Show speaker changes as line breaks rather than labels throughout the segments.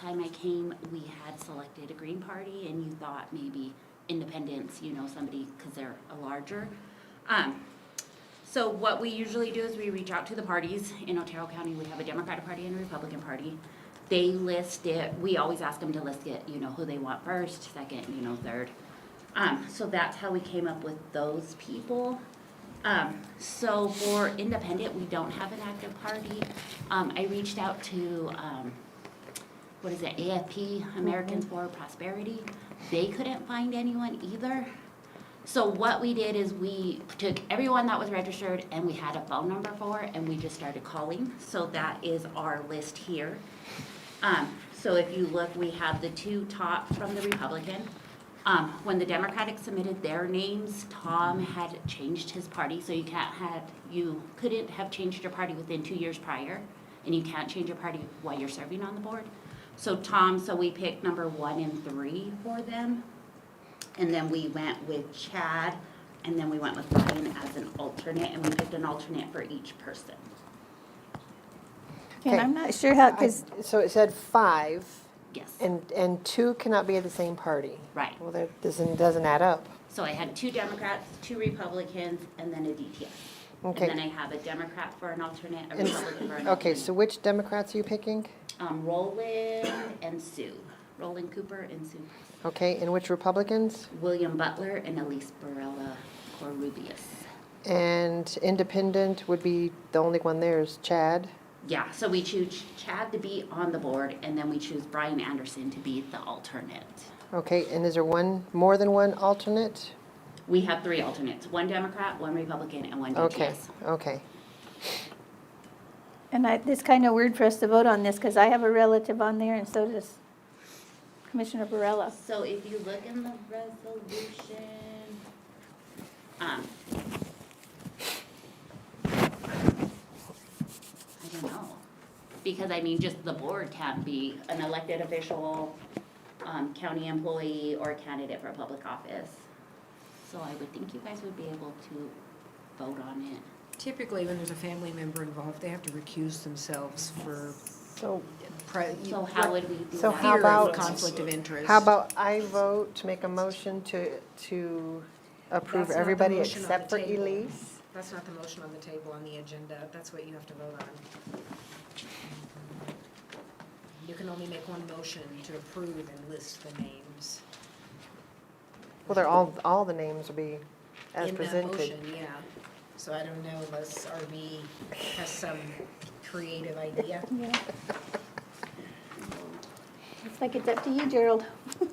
time I came, we had selected a Green Party and you thought maybe independents, you know, somebody, because they're a larger. Um, so what we usually do is we reach out to the parties. In Otero County, we have a Democratic Party and a Republican Party. They list it, we always ask them to list it, you know, who they want first, second, you know, third. Um, so that's how we came up with those people. Um, so for independent, we don't have an active party. Um, I reached out to, um, what is it, AFP, Americans for Prosperity. They couldn't find anyone either. So what we did is we took everyone that was registered and we had a phone number for and we just started calling. So that is our list here. Um, so if you look, we have the two top from the Republican. Um, when the Democratic submitted their names, Tom had changed his party, so you can't had, you couldn't have changed your party within two years prior, and you can't change your party while you're serving on the board. So Tom, so we picked number one and three for them. And then we went with Chad, and then we went with Ryan as an alternate, and we picked an alternate for each person.
And
Okay.
I'm not sure how, because
I- So it said five,
Yes,
and, and two cannot be at the same party.
right.
Well, that doesn't, doesn't add up.
So I had two Democrats, two Republicans, and then a DTS.
Okay.
And then I have a Democrat for an alternate, a
And-
Republican for an alternate.
Okay, so which Democrats are you picking?
Um, Roland and Sue, Roland Cooper and Sue,
Okay, and which Republicans?
William Butler and Elise Barella Corubius.
And independent would be, the only one there is Chad.
Yeah, so we choose Chad to be on the board, and then we choose Brian Anderson to be the alternate.
Okay, and is there one, more than one alternate?
We have three alternates, one Democrat, one Republican, and one
Okay,
DTS.
okay.
and I, it's kind of weird for us to vote on this, because I have a relative on there, and so does Commissioner Barella.
So if you look in the resolution, um. I don't know, because I mean, just the board can't be an elected official, um, county employee or candidate for public office. So I would think you guys would be able to vote on it.
Typically, when there's a family member involved, they have to recuse themselves for.
So
pri-
So how would we do that?
So how
fear of
about-
Conflict of interest.
how about I vote to make a motion to, to
That's
approve
not the
everybody
motion on the
except for
table.
Elise?
That's not the motion on the table on the agenda. That's what you have to vote on. You can only make one motion to approve and list the names.
Well, they're all, all the names will be as
in that
presented.
motion, Yeah, so I don't know unless RV has some creative idea.
Yeah. It's like it's up to you, Gerald.
Oh,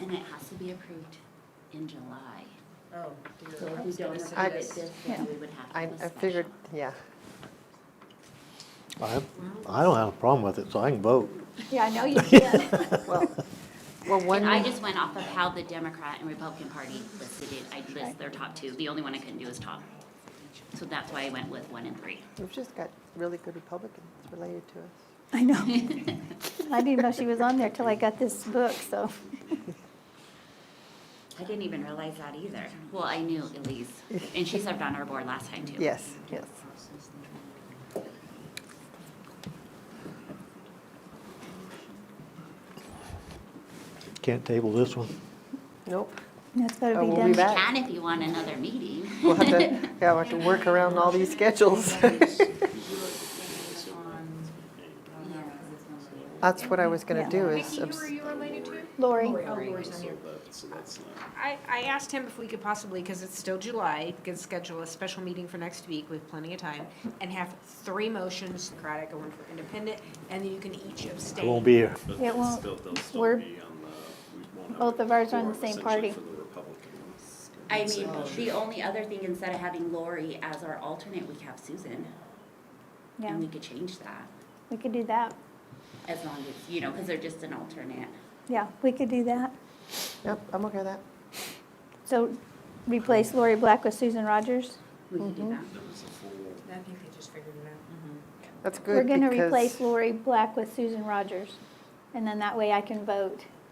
And it has to be approved in July.
Oh,
So
dear,
if
I
we
was
don't
gonna
approve
say
it
this.
this, then we would have to.
I,
do a
I figured,
special.
yeah.
I, I don't have a problem with it, so I can vote.
Yeah, I know you did.
Well, well, one.
And I just went off of how the Democrat and Republican Party listed it. I list their top two. The only one I couldn't do is Tom. So that's why I went with one and three.
We've just got really good Republicans related to us.
I know. I didn't know she was on there till I got this book, so.
I didn't even realize that either. Well, I knew Elise, and she served on our board last time too.
Yes, yes.
Can't table this one.
Nope.
That's gotta
Oh,
be
we'll
done.
be back.
Can if you want another meeting.
We'll have to, yeah, we'll have to work around all these schedules. That's what I was gonna do is,
Vicki, who are
abs-
you related to?
Lori.
Oh, Lori's on here. I, I asked him if we could possibly, because it's still July, could schedule a special meeting for next week with plenty of time and have three motions, Socratic and one for independent, and then you can each
I
abstain.
won't be here.
But
Yeah,
they'll
well,
still- they'll still
we're-
be on the- we won't have a
both of ours are on the
quorum,
same
essentially,
party.
for the Republican ones.
I mean, the only other thing, instead of having Lori as our alternate, we have Susan.
Yeah,
And we could change that,
we could do that.
as long as, you know, because they're just an alternate.
Yeah, we could do that.
yep, I'm okay with that.
So replace Lori Black with Susan Rogers.
We could do
Mm-hmm.
that.
There was a full
I think they just figured it out. Mm-hmm.
That's
We're
good
gonna replace
because
Lori Black with Susan Rogers, and then that way I can vote